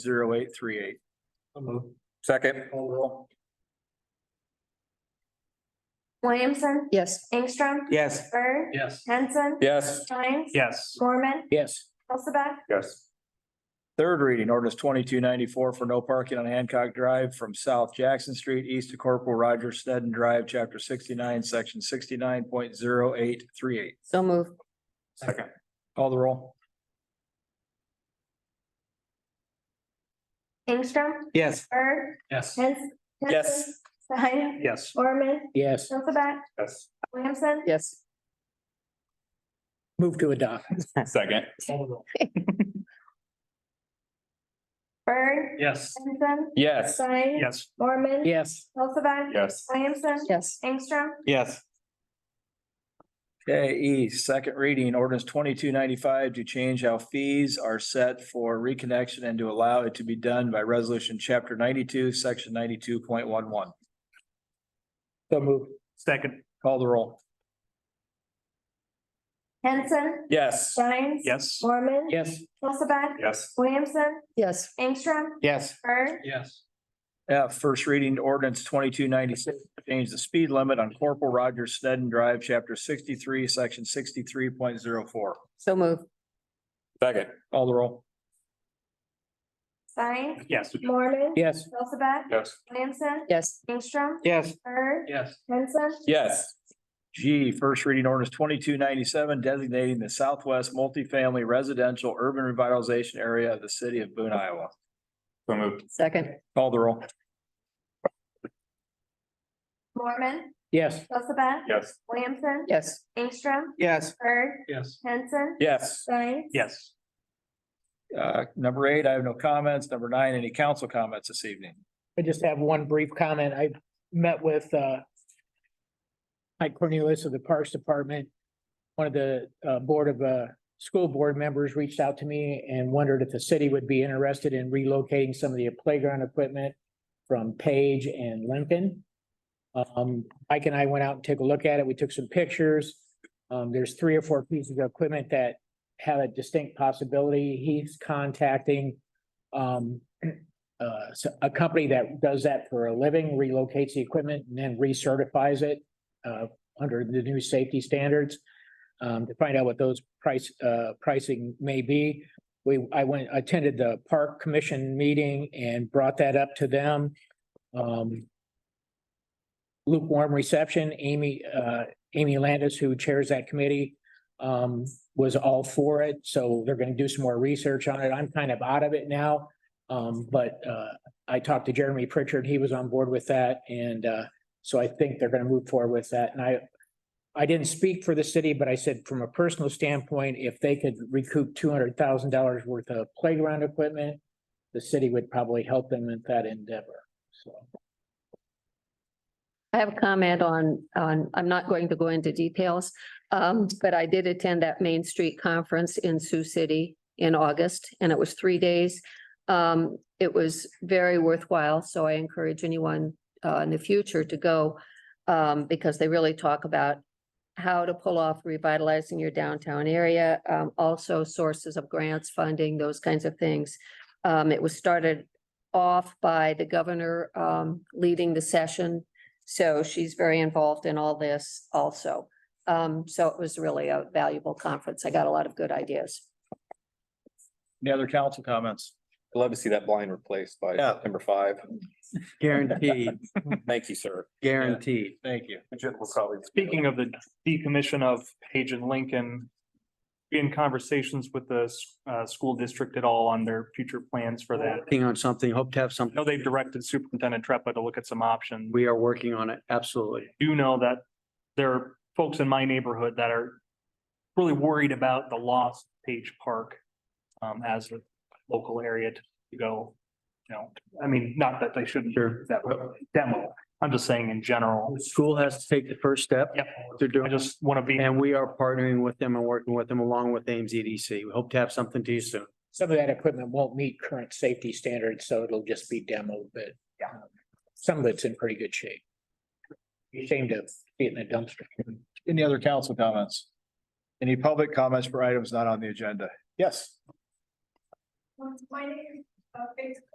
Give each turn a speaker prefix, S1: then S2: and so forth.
S1: zero eight three eight.
S2: Second,
S3: Williamson,
S4: Yes.
S3: Ingstrom,
S2: yes.
S3: Bird,
S1: Yes.
S3: Henson,
S2: Yes.
S3: Steins,
S1: Yes.
S3: Mormon,
S1: Yes.
S3: Hulseth,
S2: Yes.
S1: Third reading, ordinance twenty-two ninety-four for no parking on Hancock Drive from South Jackson Street east to Corporal Roger Snedden Drive, chapter sixty-nine, section sixty-nine point zero eight three eight.
S4: So move.
S2: Second,
S1: Call the roll.
S3: Ingstrom,
S2: yes.
S3: Bird,
S1: Yes.
S3: Henson.
S2: Yes.
S3: Stein,
S1: Yes.
S3: Mormon,
S5: Yes,
S3: Hulseth,
S2: Yes.
S3: Williamson,
S4: Yes.
S5: move to adopt.
S2: Second,
S3: Bird,
S1: Yes.
S3: Henson,
S2: yes.
S3: Stein.
S1: Yes.
S3: Mormon.
S5: Yes,
S3: Hulseth,
S2: Yes.
S3: Williamson,
S4: Yes.
S3: Ingstrom,
S2: Yes.
S1: Okay, E, second reading, ordinance twenty-two ninety-five to change how fees are set for reconnection and to allow it to be done by resolution chapter ninety-two, section ninety-two point one one.
S5: so move.
S2: Second,
S1: Call the roll.
S3: Henson,
S2: yes.
S3: Steins.
S2: Yes.
S3: Mormon.
S5: Yes,
S3: Hulseth,
S2: Yes.
S3: Williamson,
S4: Yes.
S3: Ingstrom,
S2: Yes.
S3: Bird,
S1: Yes. F, first reading ordinance twenty-two ninety-six, change the speed limit on Corporal Roger Snedden Drive, chapter sixty-three, section sixty-three point zero four.
S4: So move.
S2: Second,
S1: Call the roll.
S3: Stein,
S2: yes.
S3: Mormon.
S5: yes,
S3: Hulseth,
S2: Yes.
S3: Williamson,
S4: Yes.
S3: Ingstrom,
S2: Yes.
S3: Bird,
S1: Yes.
S3: Henson,
S2: Yes.
S1: G, first reading ordinance twenty-two ninety-seven designating the southwest multifamily residential urban revitalization area of the city of Boone, Iowa.
S2: So moved,
S4: Second.
S1: Call the roll.
S3: Mormon,
S5: yes,
S3: Hulseth,
S2: yes.
S3: Williamson,
S4: Yes.
S3: Ingstrom,
S2: Yes.
S3: Bird,
S1: Yes.
S3: Henson,
S2: Yes.
S3: Stein,
S2: Yes.
S1: Uh, number eight, I have no comments. Number nine, any council comments this evening?
S5: I just have one brief comment. I met with uh. Mike Cornelius of the Parks Department. One of the uh Board of uh School Board members reached out to me and wondered if the city would be interested in relocating some of the playground equipment. From Page and Lincoln. Um, Mike and I went out and took a look at it. We took some pictures. Um, there's three or four pieces of equipment that have a distinct possibility. He's contacting. Um, uh, s- a company that does that for a living relocates the equipment and then recertifies it uh, under the new safety standards. um, to find out what those price, uh, pricing may be. We, I went, attended the park commission meeting and brought that up to them. Um. Lukewarm reception, Amy, uh, Amy Landis, who chairs that committee, um, was all for it. So they're gonna do some more research on it. I'm kind of out of it now. Um, but, uh, I talked to Jeremy Pritchard, he was on board with that, and, uh, so I think they're gonna move forward with that, and I. I didn't speak for the city, but I said from a personal standpoint, if they could recoup two hundred thousand dollars worth of playground equipment. The city would probably help them with that endeavor, so.
S4: I have a comment on, on, I'm not going to go into details. Um, but I did attend that Main Street Conference in Sioux City in August and it was three days. Um, it was very worthwhile, so I encourage anyone, uh, in the future to go. Um, because they really talk about how to pull off revitalizing your downtown area, um, also sources of grants, funding, those kinds of things. Um, it was started off by the governor, um, leading the session so she's very involved in all this also. Um, so it was really a valuable conference. I got a lot of good ideas.
S1: Any other council comments?
S6: I'd love to see that blind replaced by
S1: Yeah.
S6: number five.
S1: Guaranteed,
S6: Thank you, sir.
S1: guaranteed. Thank you.
S7: Speaking of the decommission of Page and Lincoln. be In conversations with the s- uh school district at all on their future plans for that.
S8: Working on something, hope to have
S7: I
S8: something.
S7: know they've directed Superintendent Treppa to look at some options.
S8: We are working on it, absolutely.
S7: do know that there are folks in my neighborhood that are really worried about the lost Page Park um, as a local area to to go, you know, I mean, not that they shouldn't do that demo. I'm just saying in general.
S8: The School has to take the first step.
S7: Yep.
S8: what They're
S7: I
S8: doing,
S7: just want to be.
S8: and we are partnering with them and working with them along with Ames EDC. We hope to have something to you soon.
S5: Some of that equipment won't meet current safety standards, so it'll just be demoed, but. Yeah. Some of it's in pretty good shape. Be Ashamed of it in a dumpster.
S1: Any other council comments? Any public comments for items not on the agenda? Yes.
S3: My name Perfect